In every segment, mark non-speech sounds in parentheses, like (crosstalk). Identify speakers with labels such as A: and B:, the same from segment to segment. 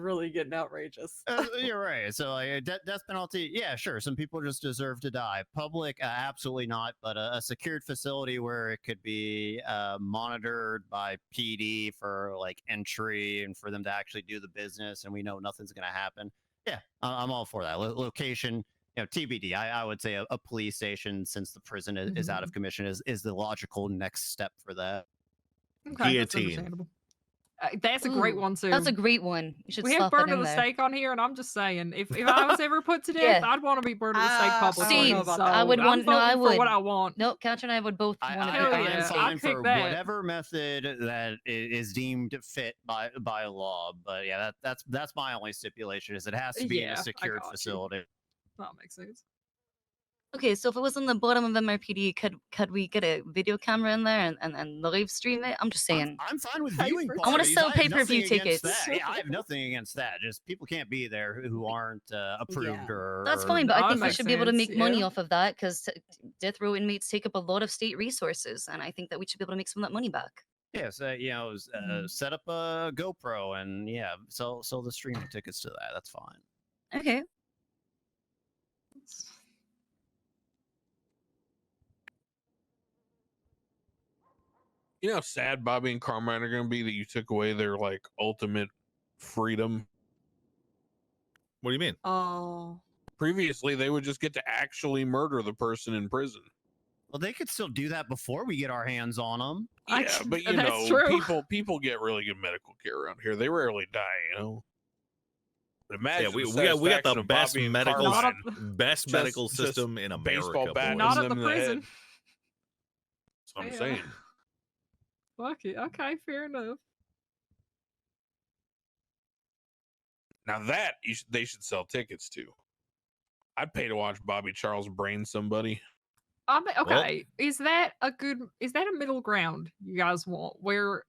A: really getting outrageous. (laughs)
B: Uh, you're right. So like a de- death penalty, yeah, sure. Some people just deserve to die. Public, uh, absolutely not. But a, a secured facility where it could be uh, monitored by PD for like entry and for them to actually do the business, and we know nothing's going to happen. Yeah, I- I'm all for that. Lo- location, you know, TBD. I, I would say a, a police station, since the prison is, is out of commission, is is the logical next step for that.
C: Okay, that's
D: Guillotine.
C: understandable.
E: Uh, that's a great
F: Ooh,
E: one too.
F: Mm, That's a great one. You should
E: we have
F: slot that
E: burned at
F: in
E: the
F: there.
E: stake on here, and I'm just saying, if, if I was
F: (laughs)
E: ever put to death,
F: Yeah. Ah,
E: I'd want to be burned at the
A: Uh,
E: stake publicly.
F: See,
E: so
F: I would
E: I'm
F: want- no, I
E: voting for
F: would.
E: what I want.
F: No, Couch and I would both
B: I,
F: want
B: I,
F: to
E: Hell
B: I
F: be
E: yeah,
B: am
F: honest.
E: I'd
B: fine
E: pick
B: for
E: that.
B: whatever method that i- is deemed fit by by law. But yeah, that, that's that's my only stipulation is it has to be
E: Yeah,
B: in
E: I
B: a secured
E: got you.
B: facility.
E: That makes sense.
F: Okay, so if it was on the bottom of MRPD, could could we get a video camera in there and, and, and live stream it? I'm just saying.
B: I'm, I'm fine with
A: Pay
B: viewing.
A: for-
F: I wanna
B: parties.
F: sell
B: have
F: pay-per-view
B: nothing against
F: tickets.
B: that. Yeah, I have nothing against that. Just people can't be there who-
E: (laughs)
B: who aren't uh, approved or.
F: That's fine, but
E: That
F: I think we
E: makes
F: should be able to
E: sense,
F: make money
E: yeah.
F: off of that because death row inmates take up a lot of state resources, and I think that we should be able to make some of that money back.
B: Yes, uh, you know, s- uh,
F: Mm-hmm.
E: Mhm.
B: set up a GoPro and yeah, sell sell the streaming tickets to that. That's fine.
F: Okay.
D: You know how sad Bobby and Carmine are going to be that you took away their like ultimate freedom.
C: What do you mean?
E: Oh,
D: Previously, they would just get to actually murder the person in prison.
B: Well, they could still do that before we get our hands on them.
E: I
D: yeah,
E: c-
D: but you
E: that's
D: know,
E: true.
D: people people get really good medical care around here. They rarely die, you know. But Imagine
C: yeah, we,
D: the
C: we got we got
D: satisfaction
C: the
D: of
C: best
D: Bobby and
C: medical
E: Not
D: Carmine.
E: a-
C: best
D: Just-
C: medical
D: just
C: system in America.
D: baseball bat
C: boys.
D: and
E: not at
D: them
E: the
D: in the head.
E: prison.
D: That's what I'm
E: Yeah.
D: saying.
E: Fuck it. Okay, fair enough.
D: Now that you should, they should sell tickets to. I'd pay to watch Bobby Charles brain somebody.
E: I mean,
C: Well-
E: okay, is that a good? Is that a middle ground you guys want where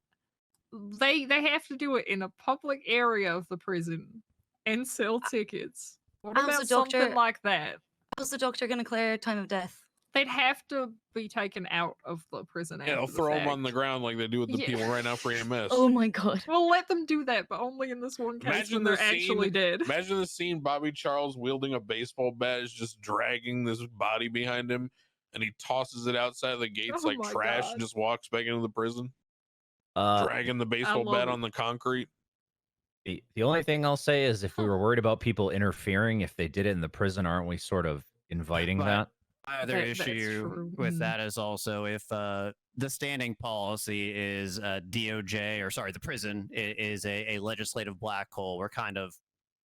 E: they they have to do it in a public area of the prison and sell tickets? What
F: I'm so
E: about something
F: doctor-
E: like that?
F: How's the doctor going to clear time of death?
E: They'd have to be taken out of the prison.
D: Yeah, they'll
E: after
D: throw them on the
E: fact.
D: ground like they do with the
E: Yeah.
D: people right now for EMS.
F: Oh my (laughs) god.
E: We'll let them do that, but only in this one case
D: Imagine
E: when
D: the
E: they're actually
D: scene-
E: dead.
D: Imagine the scene Bobby Charles wielding a baseball bat is just dragging this body behind him and he tosses it outside the gates
E: Oh
D: like
E: my
D: trash
E: God.
D: and just walks back into the prison,
G: Uh,
D: dragging the baseball
E: love
D: bat
E: it.
D: on the concrete.
G: the, the only thing I'll say is if we were worried about people interfering, if they did it in the prison, aren't we sort of inviting
B: But-
G: that?
B: My other
E: That- that's
B: issue
E: true.
B: with
E: Mhm.
B: that is also if uh, the standing policy is uh, DOJ or sorry, the prison i- is a, a legislative black hole. We're kind of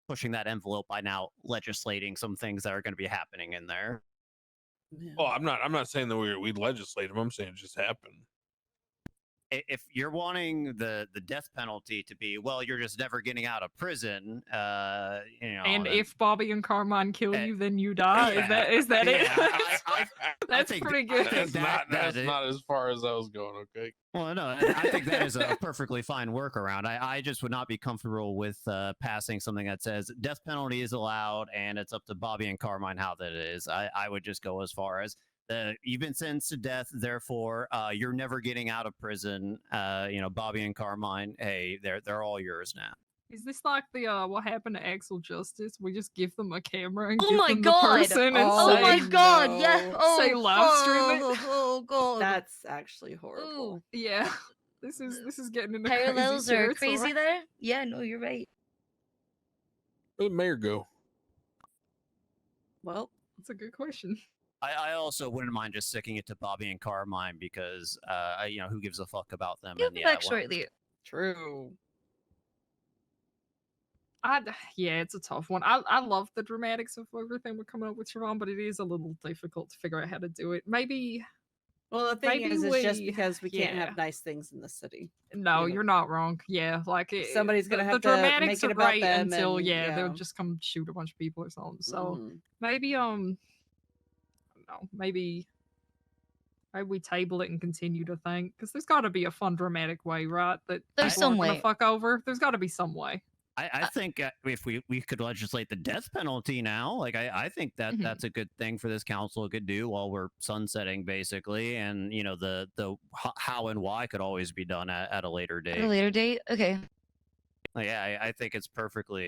B: pushing that envelope by now, legislating some things that are going to be happening in there.
A: Yeah.
D: Oh, I'm not I'm not saying that we we legislate him. I'm saying it just
E: (laughs)
D: happened.
B: I- If you're wanting the the death penalty to be, well, you're just never getting out of prison. Uh, you know,
E: and
B: then-
E: if Bobby and Carmine kill
B: Uh,
E: you, then
D: (laughs)
E: you die.
B: yeah,
E: Is that is that it?
B: yeah, I- I- I
E: That's
B: think-
E: pretty
B: I
E: good.
B: think
D: that's not
B: that- that
D: that's
B: is-
D: not as far as I was going, okay?
B: Well, no, I I think that is a perfectly fine workaround. I, I just would not be comfortable with uh, passing something that says death penalty is allowed and it's up to Bobby and Carmine how that is. I, I would just go as far as uh, you've been sentenced to death, therefore uh, you're never getting out of prison. Uh, you know, Bobby and Carmine, hey, they're they're all yours now.
E: (laughs) Is this like the uh what happened to Axel Justice? We just give them a camera and
F: Oh
E: give
F: my
E: them
F: God.
E: the person and
A: Oh
F: Oh, my
E: say,
A: no.
F: god. Yeah. Oh,
E: Say live stream it.
F: oh, oh,
E: (laughs)
F: god.
A: That's actually horrible.
F: Ooh,
E: yeah. This is this (laughs) is getting into
F: parallels
E: crazy
F: are
E: territory.
F: crazy there. Yeah, no, you're right.
D: Where'd the mayor go?
A: Well,
E: That's a good question.
B: I, I also wouldn't mind just sticking it to Bobby and Carmine because uh, I- you know who gives a fuck about them.
F: You'll
B: and
F: be
B: yeah,
F: back
B: why-
F: shortly.
A: true.
E: I d- (sighs) yeah, it's a tough one. I I love the dramatics of everything we're coming up with, Siobhan, but it is a little difficult to figure out how to do it. Maybe
A: Well, the thing
E: Maybe
A: is, it's just
E: we-
A: because we can't
E: yeah.
A: have nice things in the city.
E: no,
A: Yeah.
E: you're not wrong. Yeah, like it,
A: Somebody's gonna
E: the,
A: have
E: the
A: to make
E: dramatics
A: it
E: are
A: about
E: great
A: them
E: until
A: and-
E: yeah, they'll
A: yeah.
E: just come shoot a bunch of people or something. So.
A: Mhm.
E: maybe um I don't know, maybe maybe we table it and continue to think because there's got to be a fun dramatic way right that
F: There's
E: people aren't
F: some
E: gonna
F: way.
E: fuck over there's got to be some way
B: I, I think uh, if we, we could legislate the death penalty now, like I, I think that
E: Mhm.
B: that's a good thing for this council could do while we're sunsetting, basically, and you know the the ho- how and why could always be done at, at a later
F: At a
B: date.
F: later date. Okay.
B: Like, yeah, I, I think it's perfectly